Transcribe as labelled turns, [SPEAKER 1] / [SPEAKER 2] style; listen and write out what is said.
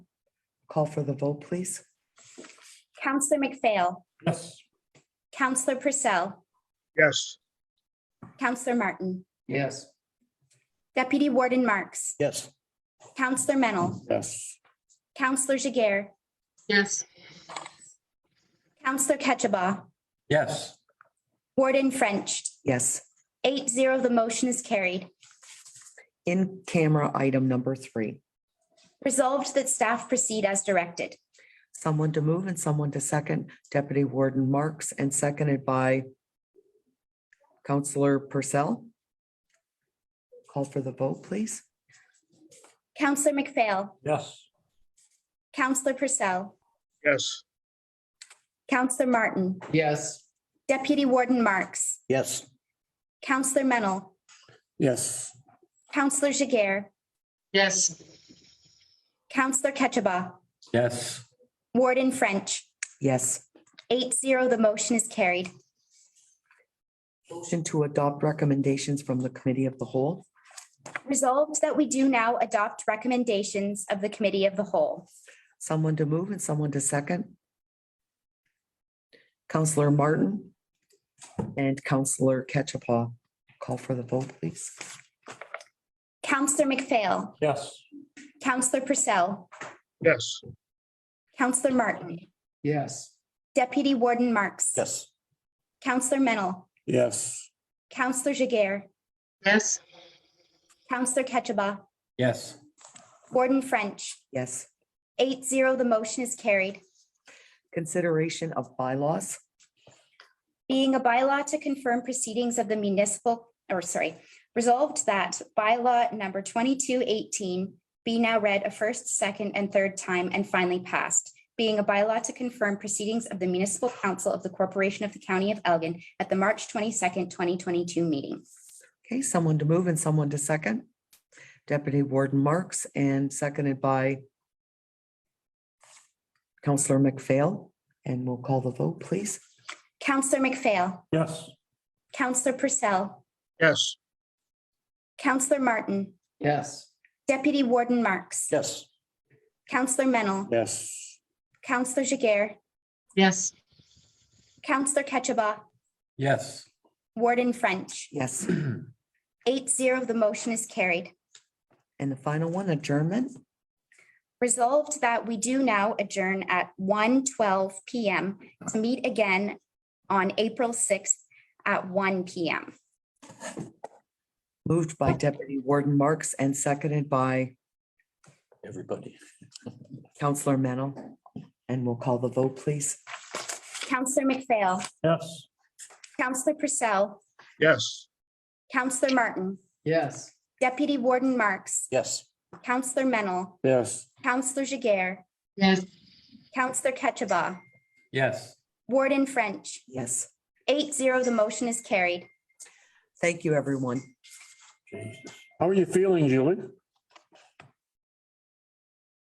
[SPEAKER 1] Call for the vote, please.
[SPEAKER 2] Counselor McPhail,
[SPEAKER 3] Yes.
[SPEAKER 2] Counselor Purcell,
[SPEAKER 4] yes,
[SPEAKER 2] Counselor Martin,
[SPEAKER 3] Yes.
[SPEAKER 2] Deputy Warden Marks,
[SPEAKER 3] Yes.
[SPEAKER 2] Counselor Mennel,
[SPEAKER 3] Yes.
[SPEAKER 2] Counselor Jager,
[SPEAKER 5] yes,
[SPEAKER 2] Counselor Ketchabah,
[SPEAKER 3] Yes.
[SPEAKER 2] Warden French.
[SPEAKER 1] Yes,
[SPEAKER 2] Eight zero, the motion is carried.
[SPEAKER 1] in camera item number three.
[SPEAKER 2] Resolved that staff proceed as directed.
[SPEAKER 1] Someone to move and someone to second Deputy Warden Marks and seconded by Counselor Purcell. Call for the vote, please.
[SPEAKER 2] Counselor McPhail,
[SPEAKER 3] Yes.
[SPEAKER 2] Counselor Purcell,
[SPEAKER 4] yes,
[SPEAKER 2] Counselor Martin,
[SPEAKER 3] Yes.
[SPEAKER 2] Deputy Warden Marks,
[SPEAKER 3] Yes.
[SPEAKER 2] Counselor Mennel,
[SPEAKER 3] Yes.
[SPEAKER 2] Counselor Jager,
[SPEAKER 5] yes,
[SPEAKER 2] Counselor Ketchabah,
[SPEAKER 3] Yes.
[SPEAKER 2] Warden French.
[SPEAKER 1] Yes,
[SPEAKER 2] Eight zero, the motion is carried.
[SPEAKER 1] motion to adopt recommendations from the Committee of the Whole.
[SPEAKER 2] Resolved that we do now adopt recommendations of the Committee of the Whole.
[SPEAKER 1] Someone to move and someone to second. Counselor Martin and Counselor Ketchapah. Call for the vote, please.
[SPEAKER 2] Counselor McPhail,
[SPEAKER 3] Yes.
[SPEAKER 2] Counselor Purcell,
[SPEAKER 4] yes,
[SPEAKER 2] Counselor Martin,
[SPEAKER 3] Yes.
[SPEAKER 2] Deputy Warden Marks.
[SPEAKER 3] Yes.
[SPEAKER 2] Counselor Mennel,
[SPEAKER 3] Yes.
[SPEAKER 2] Counselor Jager,
[SPEAKER 5] yes,
[SPEAKER 2] Counselor Ketchabah,
[SPEAKER 3] Yes.
[SPEAKER 2] Warden French.
[SPEAKER 1] Yes,
[SPEAKER 2] Eight zero, the motion is carried.
[SPEAKER 1] consideration of bylaws.
[SPEAKER 2] Being a bylaw to confirm proceedings of the municipal, or sorry, resolved that bylaw number twenty-two eighteen be now read a first, second, and third time and finally passed. Being a bylaw to confirm proceedings of the municipal council of the corporation of the county of Elgin at the March twenty-second, twenty twenty-two meeting.
[SPEAKER 1] Okay, someone to move and someone to second. Deputy Warden Marks and seconded by Counselor McPhail, and we'll call the vote, please.
[SPEAKER 2] Counselor McPhail,
[SPEAKER 3] Yes.
[SPEAKER 2] Counselor Purcell,
[SPEAKER 4] yes,
[SPEAKER 2] Counselor Martin,
[SPEAKER 3] Yes.
[SPEAKER 2] Deputy Warden Marks,
[SPEAKER 3] Yes.
[SPEAKER 2] Counselor Mennel,
[SPEAKER 3] Yes.
[SPEAKER 2] Counselor Jager,
[SPEAKER 5] yes,
[SPEAKER 2] Counselor Ketchabah,
[SPEAKER 3] Yes.
[SPEAKER 2] Warden French.
[SPEAKER 1] Yes,
[SPEAKER 2] Eight zero, the motion is carried.
[SPEAKER 1] and the final one, adjournment.
[SPEAKER 2] Resolved that we do now adjourn at 1:12 PM to meet again on April sixth at one PM.
[SPEAKER 1] Moved by Deputy Warden Marks and seconded by
[SPEAKER 3] Everybody.
[SPEAKER 1] Counselor Mennel. And we'll call the vote, please.
[SPEAKER 2] Counselor McPhail,
[SPEAKER 3] Yes.
[SPEAKER 2] Counselor Purcell,
[SPEAKER 4] yes.
[SPEAKER 2] Counselor Martin,
[SPEAKER 3] Yes.
[SPEAKER 2] Deputy Warden Marks,
[SPEAKER 3] Yes.
[SPEAKER 2] Counselor Mennel,
[SPEAKER 3] Yes.
[SPEAKER 2] Counselor Jager,
[SPEAKER 5] yes,
[SPEAKER 2] Counselor Ketchabah,
[SPEAKER 3] Yes.
[SPEAKER 2] Warden French.
[SPEAKER 1] Yes,
[SPEAKER 2] Eight zero, the motion is carried.
[SPEAKER 1] thank you, everyone.
[SPEAKER 6] How are you feeling, Julie?